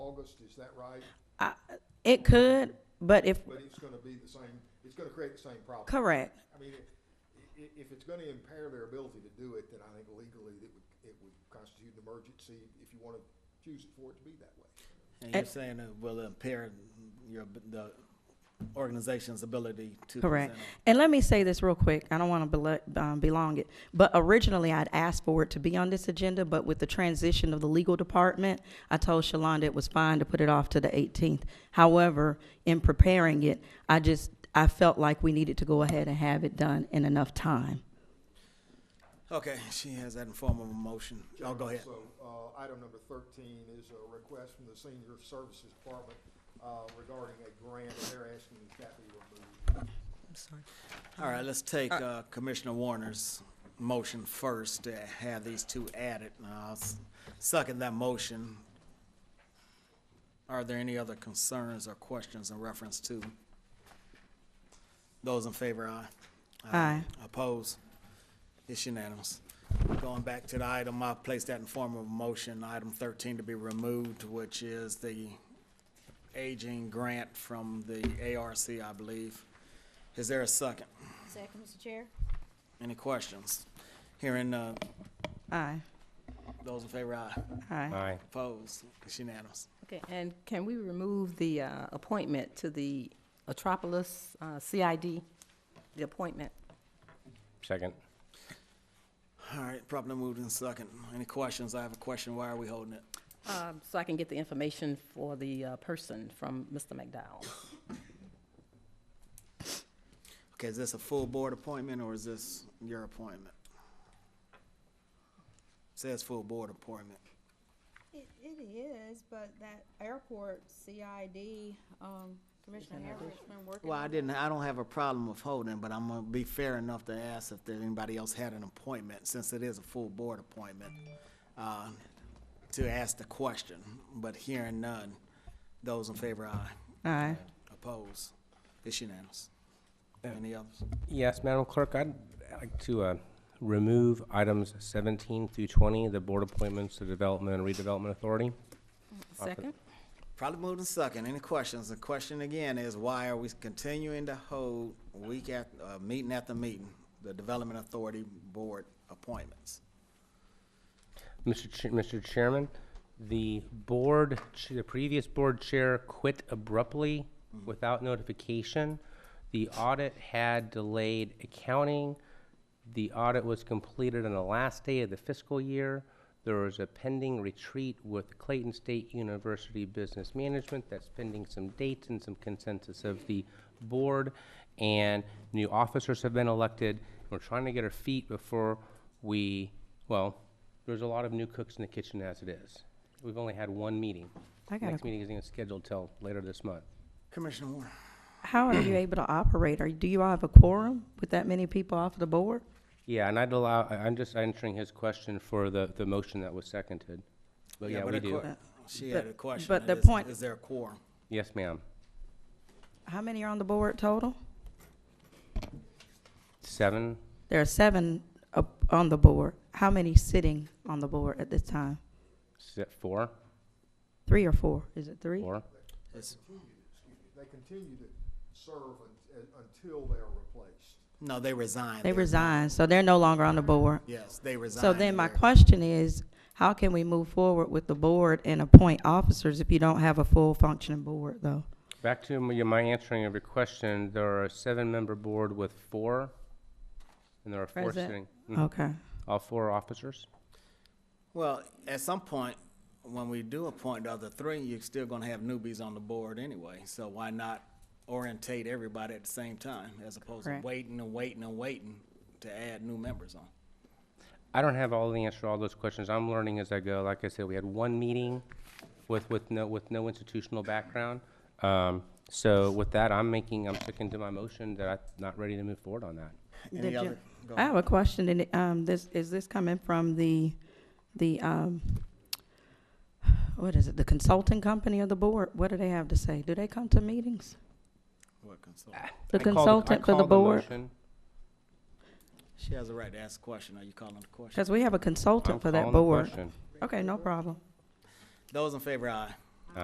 August, is that right? I- It could, but if, But it's gonna be the same, it's gonna create the same problem. correct, I mean, i- i- if it's gonna impair their ability to do it, then I think legally it would, it would constitute an emergency if you wanna choose it for it to be that way. And you're At- saying it will impair your, the organization's ability to present. correct. And let me say this real quick, I don't want to belong it, but originally I'd asked for it to be on this agenda, but with the transition of the legal department, I told Shalonda it was fine to put it off to the 18th. However, in preparing it, I just, I felt like we needed to go ahead and have it done in enough time. Okay, she has that in form of a motion. Oh, go ahead. So, uh, item number thirteen is a request from the Senior Services Department, uh, regarding a grant, and they're asking that that be removed. All right, let's take uh, Commissioner Warner's motion first to have these two added. And I'll s- second that motion. Are there any other concerns or questions in reference to? Those in favor, aye. Aye. Oppose? It's unanimous. Going back to the item, I placed that in form of a motion, item thirteen to be removed, which is the aging grant from the ARC, I believe. Is there a second? Second, Mr. Chair. Any questions? Hearing, uh, Aye, those in favor, aye. aye. Aye. Opposed? It's unanimous. Okay, and can we remove the uh, appointment to the Atropolis uh, CID, the appointment? Second. All right, properly moved in second. Any questions? I have a question. Why are we holding it? um, So I can get the information for the uh, person from Mr. McDowell. Okay, is this a full board appointment or is this your appointment? Says full board appointment. It, it is, but that airport CID, um, Commissioner Harris been working Well, I on. didn't, I don't have a problem with holding, but I'm gonna be fair enough to ask if there, anybody else had an appointment, since it is a full board appointment, uh, to ask the question, but hearing none, those in favor, aye. Aye. Oppose. It's unanimous. Any others? Yes, Madam Clerk, I'd like to uh, remove items 17 through 20, the board appointments to Development and Redevelopment Authority. Second? Probably moved in second. Any questions? The question again is why are we continuing to hold week at, uh, meeting after meeting, the Development Authority Board appointments? Mr. Ch- Mr. Chairman, the board, ch- the previous board chair quit abruptly without notification. The audit had delayed accounting. The audit was completed on the last day of the fiscal year. There was a pending retreat with Clayton State University Business Management that's pending some dates and some consensus of the board. And new officers have been elected. We're trying to get our feet before we, well, there's a lot of new cooks in the kitchen as it is. We've only had one meeting. I got a Next meeting isn't scheduled till later this month. Commissioner Warren? How are you able to operate? Are, do you all have a quorum with that many people off of the board? Yeah, and I'd allow, I- I'm just answering his question for the, the motion that was seconded. But Oh, yeah, but we a do. que- She had a But- question. but the Is- point- Is there a quorum? Yes, ma'am. How many are on the board total? Seven, There are seven up on the board. How many sitting on the board at this time? si- four, Three or four? Is it three? four. It's- Excuse me, They continue to serve un- until they are replaced. No, they resigned. They They're- resigned, so they're no longer on the board. Yes, they resigned. So then my They're- question is, how can we move forward with the board and appoint officers if you don't have a full functioning board, though? Back to my my answering of your question, there are a seven-member board with four, and there are four Present. sitting. Mhm. Okay. All four officers? Well, at some point, when we do appoint the other three, you're still gonna have newbies on the board anyway, so why not orientate everybody at the same time, as opposed to Correct. waiting and waiting and waiting to add new members on? I don't have all the answer to all those questions. I'm learning as I go. Like I said, we had one meeting with, with no, with no institutional background. Um, so with that, I'm making, I'm sticking to my motion that I'm not ready to move forward on that. Any Did you- other- go I have a question, and, it, um, this, is this coming from the, the, um, what is it, the consulting company of the board? What do they have to say? Do they come to meetings? What consult- The I called I consultant for the called board? motion. She has a right to ask a question. Are you calling the question? Because we have a I'm consultant for that calling the board. question. Okay, no problem. Those in favor, aye.